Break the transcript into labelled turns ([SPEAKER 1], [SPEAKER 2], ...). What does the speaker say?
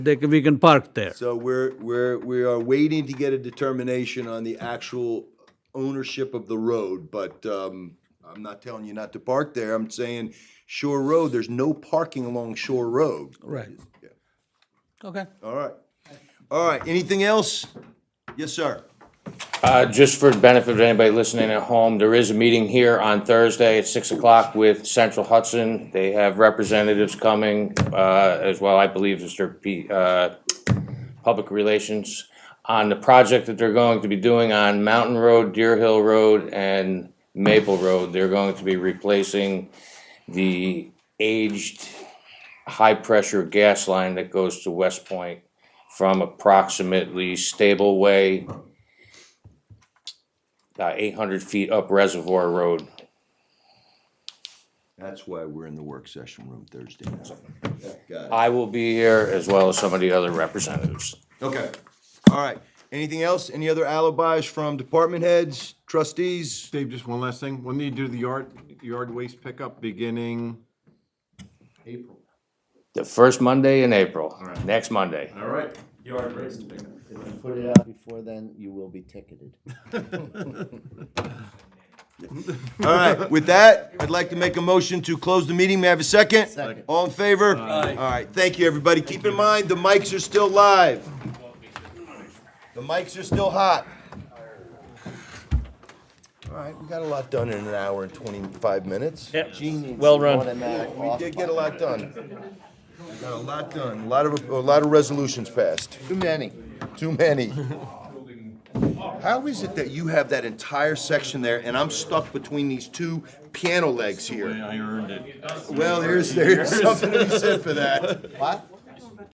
[SPEAKER 1] they, can- we can park there.
[SPEAKER 2] So we're, we're, we are waiting to get a determination on the actual ownership of the road, but, um, I'm not telling you not to park there, I'm saying Shore Road, there's no parking along Shore Road.
[SPEAKER 1] Right. Okay.
[SPEAKER 2] All right, all right, anything else? Yes, sir.
[SPEAKER 3] Uh, just for the benefit of anybody listening at home, there is a meeting here on Thursday at six o'clock with Central Hudson. They have representatives coming, uh, as well, I believe, Mr. P, uh, Public Relations, on the project that they're going to be doing on Mountain Road, Deer Hill Road, and Maple Road. They're going to be replacing the aged high-pressure gas line that goes to West Point from approximately Stable Way about uh, eight hundred feet up Reservoir Road.
[SPEAKER 2] That's why we're in the work session room Thursday night. Yeah, Got
[SPEAKER 3] I will be here as well as some of the other representatives.
[SPEAKER 2] it, okay, all right, anything else, any other alibis from department heads, trustees?
[SPEAKER 4] Dave, just one last thing. When do you do the yard, yard waste pickup beginning? April.
[SPEAKER 3] The first Monday in April, next Monday.
[SPEAKER 4] All right.
[SPEAKER 5] If you put it out before then, you will be ticketed.
[SPEAKER 2] All right, with that, I'd like to make a motion to close the meeting. May I have a second?
[SPEAKER 5] Second.
[SPEAKER 2] All in favor? All right, thank you, everybody. Keep in mind, the mics are still live. The mics are still hot. All right, we got a lot done in an hour and twenty-five minutes.
[SPEAKER 6] Yep.
[SPEAKER 5] Genius.
[SPEAKER 6] Well run.
[SPEAKER 5] Automatic
[SPEAKER 2] We
[SPEAKER 5] off
[SPEAKER 2] did get a lot done. We Got a lot done, a lot of, a lot of resolutions passed.
[SPEAKER 5] Too many.
[SPEAKER 2] Too many. How is it that you have that entire section there and I'm stuck between these two piano legs here?
[SPEAKER 6] I earned it.
[SPEAKER 2] Well, there's, there's something to be said for that.
[SPEAKER 5] What?